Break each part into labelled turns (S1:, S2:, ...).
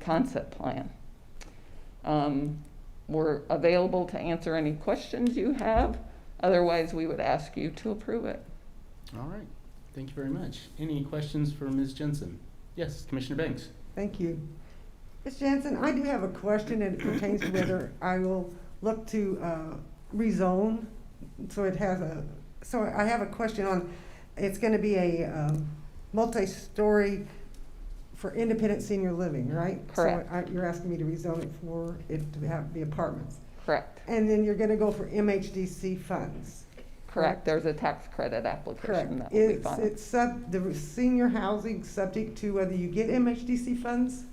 S1: concept plan. Um, We're available to answer any questions you have, otherwise we would ask you to approve it.
S2: All right, thank you very much. Any questions for Ms. Jensen? Yes, Commissioner Banks?
S3: Thank you. Ms. Jensen, I do have a question, and it pertains to whether I will look to uh, rezone, so it has a, so I have a question on, it's gonna be a um, multi-story for independent senior living, right?
S1: Correct.
S3: So I- you're asking me to rezone it for, it to have, be apartments.
S1: Correct,
S3: And then you're gonna go for MHDC funds,
S1: correct. There's a tax credit
S3: correct?
S1: application that will be
S3: Is
S1: filed.
S3: it sub, the senior housing subject to whether you get MHDC funds?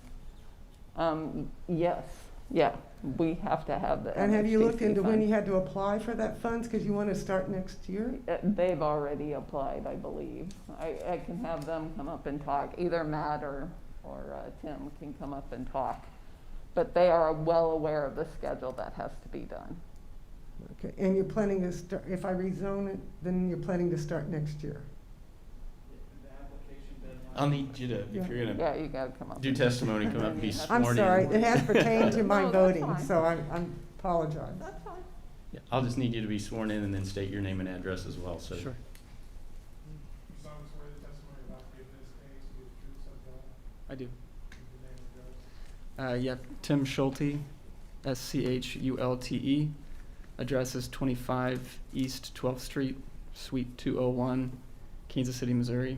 S1: Um, Yes, yeah, we have to have the.
S3: And have you looked
S1: MHDC
S3: into when
S1: funds.
S3: you had to apply for that funds, because you want to start next year?
S1: Uh, They've already applied, I believe. I, I can have them come up and talk, either Matt or, or uh, Tim can come up and talk. But they are well aware of the schedule that has to be done.
S3: Okay, and you're planning to start, if I rezone it, then you're planning to start next year?
S2: I'll need you to, if you're gonna
S1: Yeah, you gotta come up.
S2: do testimony, come up and be
S1: I'm
S2: sworn
S3: I'm
S2: in.
S3: sorry, it has pertained to
S1: No,
S3: my
S1: that's
S3: voting,
S1: fine.
S3: so I I apologize.
S1: That's fine.
S2: Yeah, I'll just need you to be sworn in and then state your name and address as well, so.
S4: Sure.
S5: You solemnly swear the testimony about giving this case to be the truth, so help
S4: I do.
S5: you, in
S4: Uh,
S5: the name of God.
S4: yeah, Tim Schulte, S C H U L T E. Address is 25 East 12th Street, Suite 201, Kansas City, Missouri.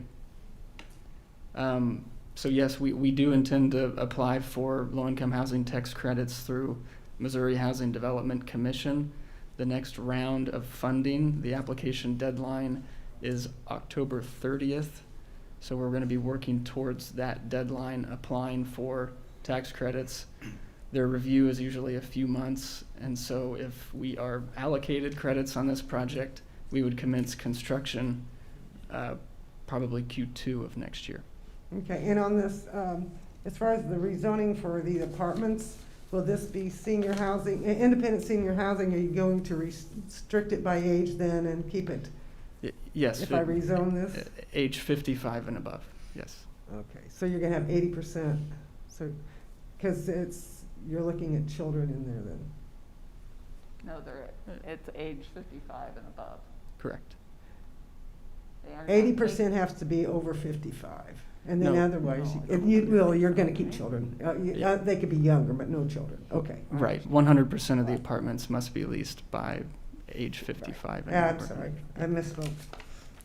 S4: Um, so, yes, we, we do intend to apply for low income housing tax credits through Missouri Housing Development Commission. The next round of funding, the application deadline is October 30th. So, we're going to be working towards that deadline, applying for tax credits. Their review is usually a few months, and so if we are allocated credits on this project, we would commence construction uh, probably Q2 of next year.
S3: Okay, and on this, um, as far as the rezoning for the apartments, will this be senior housing, i- independent senior housing? Are you going to restrict it by age then and keep it
S4: Y- Yes.
S3: if I
S4: fi-
S3: rezone this?
S4: uh, Age 55 and above, yes.
S3: Okay, so you're gonna have eighty percent, so, because it's, you're looking at children in there then.
S1: No, they're, it's age fifty-five and above.
S4: Correct.
S1: They are not-
S3: Eighty percent has to be over fifty-five, and then
S4: No.
S3: otherwise,
S1: No, I
S3: if
S1: don't
S3: you,
S1: believe
S3: well,
S1: that.
S3: you're gonna keep children. Uh, you- uh, They could be younger, but no children, okay. all
S4: Right. 100% of the apartments must be leased by age 55 and
S3: Ah, I'm
S4: over.
S3: sorry, I misspoke.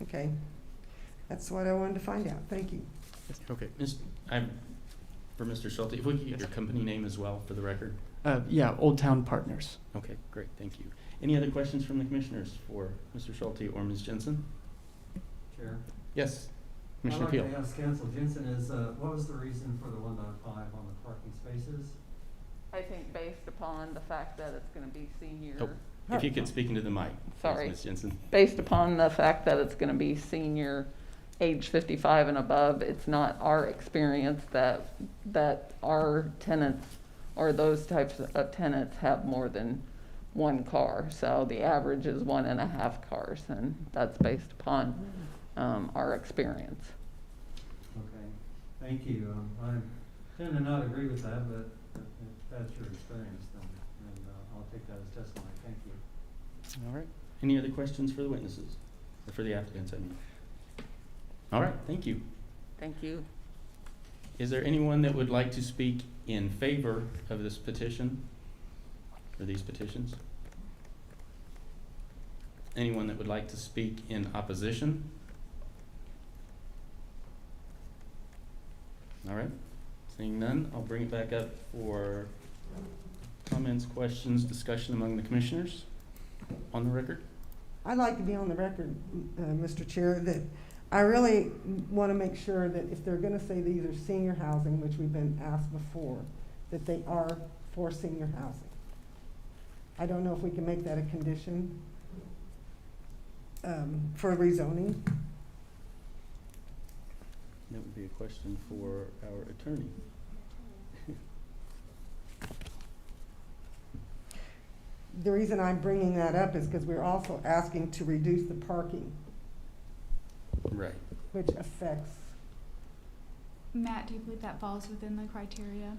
S3: Okay, that's what I wanted to find out, thank you.
S4: Okay.
S2: Ms., I'm, for Mr. Schulte, if we could get your company name as well for the record?
S4: Uh, yeah, Old Town Partners.
S2: Okay, great, thank you. Any other questions from the commissioners for Mr. Schulte or Ms. Jensen?
S6: Chair.
S2: Yes,
S6: I'd
S2: Commissioner
S6: like
S2: Peel.
S6: to ask Council Jensen is, uh, what was the reason for the one point five on the parking spaces?
S1: I think based upon the fact that it's gonna be
S2: Oh.
S1: senior,
S2: If you could speak into the mic. please,
S1: Sorry.
S2: Ms. Jensen.
S1: based upon the fact that it's gonna be senior, age fifty-five and above, it's not our experience that, that our tenants or those types of tenants have more than one car. So the average is one and a half cars, and that's based upon, um, our experience.
S6: Okay, thank you. Um, I tend to not agree with that, but if that's your experience, then, then uh, I'll take that as testimony. Thank you.
S4: All right.
S2: Any other questions for the witnesses, or for the applicants, I mean? All right, thank you.
S1: Thank you.
S2: Is there anyone that would like to speak in favor of this petition? Or these petitions? Anyone that would like to speak in opposition? All right, seeing none, I'll bring it back up for comments, questions, discussion among the commissioners on the record.
S3: I'd like to be on the record, uh, Mr. Chair, that I really want to make sure that if they're going to say these are senior housing, which we've been asked before, that they are for senior housing. I don't know if we can make that a condition um, for rezoning.
S2: That would be a question for our attorney.
S3: The reason I'm bringing that up is because we're also asking to reduce the parking,
S2: Right.
S3: which affects,
S7: Matt, do you believe that falls within the criteria?